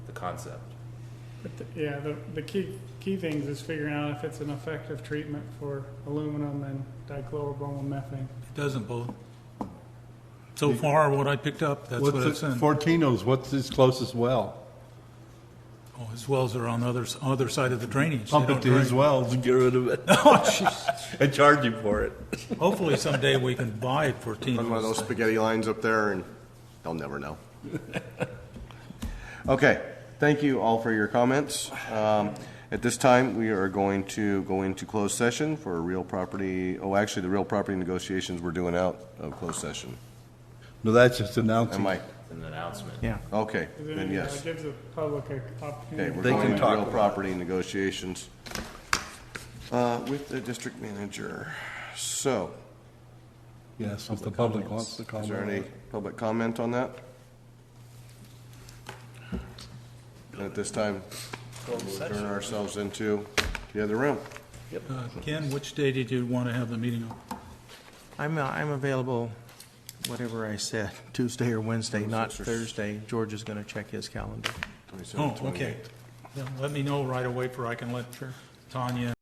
the concept. But the- Yeah, the, the key, key things is figuring out if it's an effective treatment for aluminum and dichlorobromomethanes. It doesn't both. So far, what I picked up, that's what it's What's it- in. Fortino's, what's his closest well? Oh, his wells are on the other, s- other side of the drainage. They Pump it don't to his drain. wells and get rid of it. Oh, jeez. And charge you for it. Hopefully someday we can buy Fortino's. Run one of those spaghetti lines up there and they'll never know. Okay, thank you all for your comments. Um, At this time, we are going to go into closed session for real property, oh, actually, the real property negotiations we're doing out of closed session. No, that's just And announcing. Mike, An announcement. okay, Does it- then uh, yes. Gives the public a Okay, opportunity. we're They going can into talk real about it. property negotiations uh, with the district manager. So, Yes, if the public wants to is there any comment. public comment on that? And At this time, we'll turn ourselves into the other room. Uh, Ken, which day did you want to have the meeting on? I'm, uh, I'm available, whatever I said, Tuesday or Wednesday, not Thursday. George is gonna check his calendar. Oh, okay. Then Let me know right away for I can let Tanya